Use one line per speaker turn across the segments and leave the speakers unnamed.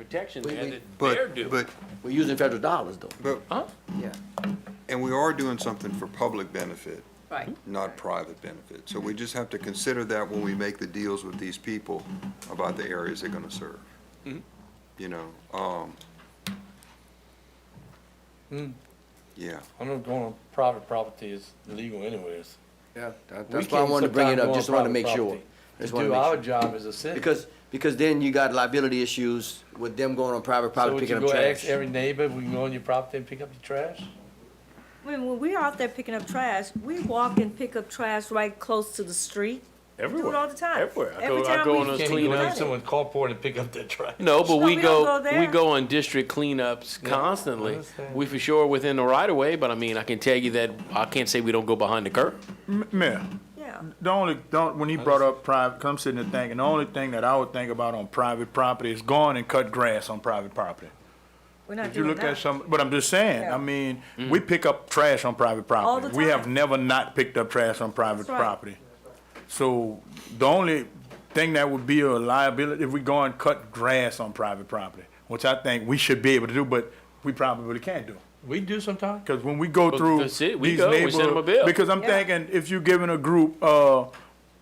protection
We-
there
we-
that they're
But,
doing.
but,
We're using federal dollars though.
but,
Huh?
Yeah.
and we are doing something for public benefit,
Right.
not private benefit. So we just have to consider that when we make the deals with these people about the areas they're gonna serve.
Mm-hmm.
You know, um. Mm. Yeah,
I'm not going on private property is illegal anyways.
Yeah, that-
We
that's why I
can't
wanted to bring it
sometimes
up,
go
just
on
wanted to
private
make sure.
property
Just
To
wanted
do
to make
our
sure.
job as a city.
Because, because then you got liability issues with them going on private property picking up
So would you go ask
trash.
every neighbor, we can go on your property and pick up your trash?
When, when we're out there picking up trash, we walk and pick up trash right close to the street.
Everywhere.
Do it all the time.
Everywhere. I
Every
go, I
time
go
we-
on those
Can't
clean
you go
up.
to
cleanups.
someone's carport and pick up their trash?
No, but
No,
we
we don't
go,
go
we
there.
go on district cleanups constantly.
understand.
We for sure within the right of way, but I mean, I can tell you that, I can't say we don't go behind the curb.
M- Mayor,
Yeah.
the only, don't, when he brought up private, I'm sitting there thinking, the only thing that I would think about on private property is going and cut grass on private property.
We're not
If you
doing
look at
that.
some, but I'm just saying,
Yeah.
I mean, we pick up trash on private property.
All the
We have
time.
never not picked up trash on private
That's right.
property. So the only thing that would be a liability if we go and cut grass on private property, which I think we should be able to do, but we probably can't do.
We do sometimes.
Because when we go
Well,
through
that's it. We
these
go, we
neighborhood,
send 'em a bill.
because I'm
Yeah.
thinking if you're giving a group, uh,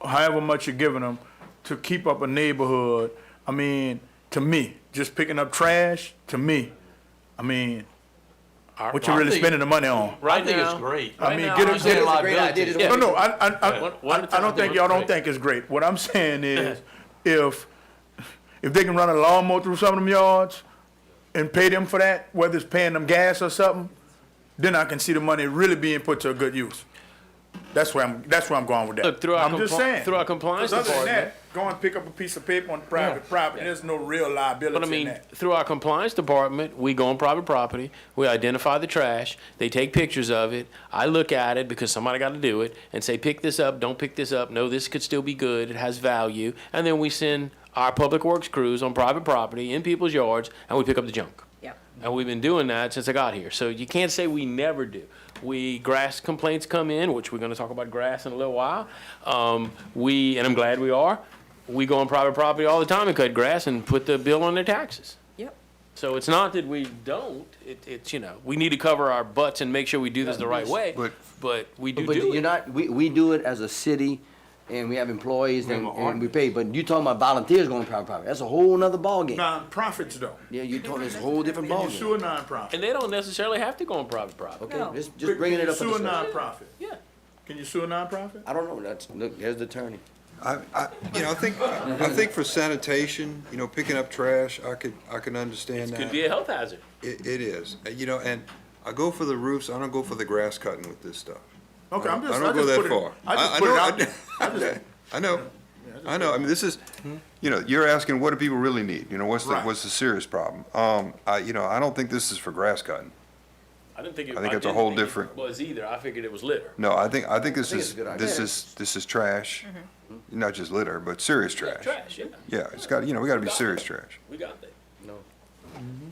however much you're giving them to keep up a neighborhood, I mean, to me, just picking up trash, to me, I mean, what you
I
really
think-
spending the money on?
Right
I
I think
think
it's
now-
great.
I mean,
now,
get
I'm
a,
saying
get a,
like- Yeah.
no, no, I, I, I,
One- one at a
I, I
time.
don't think y'all don't
Right.
think it's great. What I'm saying is, if if they can run a lawnmower through some of them yards and pay them for that, whether it's paying them gas or something, then I can see the money really being put to a good use. That's where I'm. That's where I'm going with that.
Look, through our
I'm just
compli-
saying.
through our compliance
'Cause other than
department-
that, go and pick up a piece of paper on private property. There's no real liability
But I
in
mean,
that.
through our compliance department, we go on private property, we identify the trash, they take pictures of it. I look at it because somebody got to do it and say, pick this up, don't pick this up. No, this could still be good. It has value. And then we send our public works crews on private property in people's yards and we pick up the junk.
Yeah.
And we've been doing that since I got here. So you can't say we never do. We grass complaints come in, which we're going to talk about grass in a little while. Um, we and I'm glad we are. We go on private property all the time and cut grass and put the bill on their taxes.
Yep.
So it's not that we don't. It, it's you know we need to cover our butts and make sure we do this the right way.
But-
but we do
But
do
you're
it.
not, we, we do it as a city and we have employees and, and we pay, but you talking about volunteers going private property. That's a whole nother ballgame.
Nonprofits though,
Yeah, you're talking, it's a whole different
and you
ballgame.
sue a nonprofit.
Oh, And they don't necessarily have to go on private property.
Okay,
No.
just, just bringing it up. for
Can you sue a
discussion.
nonprofit?
Yeah.
Can you sue a nonprofit?
I don't know, that's, look, there's the attorney.
I, I, you know, I think, I think for sanitation, you know, picking up trash, I could, I can understand that.
Could be a health hazard.
It, it is, Uh, you know, and I go for the roofs, I don't go for the grass cutting with this stuff.
Okay,
I
I'm
don't-
just.
I don't
just
go
put
that
it-
far.
I just
I- I
put it
know-
out
I-
there. I just-
I know, I know, I mean, this is, you know, you're asking, what do people really need? You know, what's the,
Hmm? Right.
what's the serious problem? Um, I, you know, I don't think this is for grass cutting.
I didn't think. It,
I think it's a
didn't
whole
think it
different-
was either. I figured it was litter.
No, I think, I think this
think
is,
it's a good
this
idea.
is, this is trash,
Mm-hmm.
not just litter, but serious trash.
Trash. Yeah.
Yeah, it's got, you know, we gotta be serious trash.
We got that.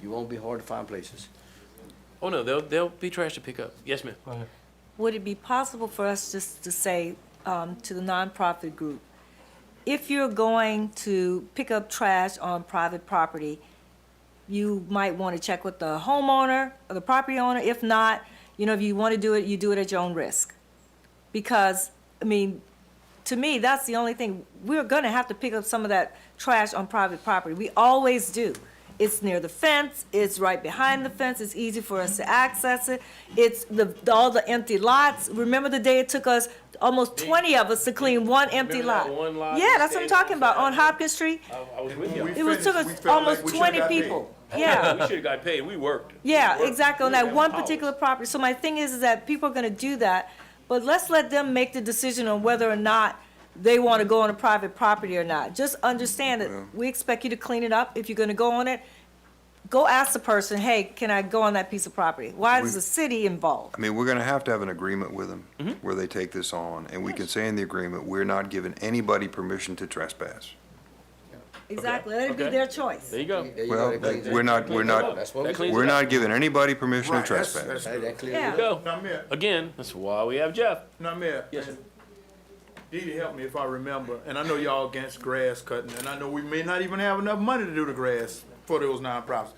You won't be hard to find places.
Oh no, they'll they'll be trash to pick up. Yes, ma'am.
Would it be possible for us just to say, um, to the nonprofit group, if you're going to pick up trash on private property, you might want to check with the homeowner or the property owner. If not, you know, if you want to do it, you do it at your own risk. Because, I mean, to me, that's the only thing, we're gonna have to pick up some of that trash on private property. We always do. It's near the fence, it's right behind the fence, it's easy for us to access it. It's the, all the empty lots. Remember the day it took us, almost twenty of us to clean one empty
Remember that
lot?
one lot
Yeah,
we
that's what I'm
stayed on
talking about, on
Saturday?
Hopkins Street.
I, I was with you.
We
It was, took
finished, we
us
felt like we
almost
should've
twenty
got paid.
people. Yeah.
we should have got paid. We worked.
Yeah, exactly, on that one particular property. So my thing is, is that people are gonna do that, but let's let them make the decision on whether or not they wanna go on a private property or not. Just understand that we expect you to clean it up. If you're gonna go on it, go ask the person, hey, can I go on that piece of property? Why is the city involved?
I mean, we're gonna have to have an agreement with them
Mm-hmm.
where they take this on, and we can say in the agreement, we're not giving anybody permission to trespass.
Exactly, let it be
okay.
their choice.
There you go.
There you
Well,
go, that cleans it.
we're not, we're not,
That's what we
That cleans
do.
we're not giving anybody permission to
Right, that's-
trespass.
that's
Hey,
good.
that clears
Yeah.
it up.
Go.
Now, Mayor,
Again, that's why we have Jeff.
now, Mayor.
Yes, sir.
Dee Dee, help me if I remember, and I know y'all against grass cutting, and I know we may not even have enough money to do the grass for those nonprofits.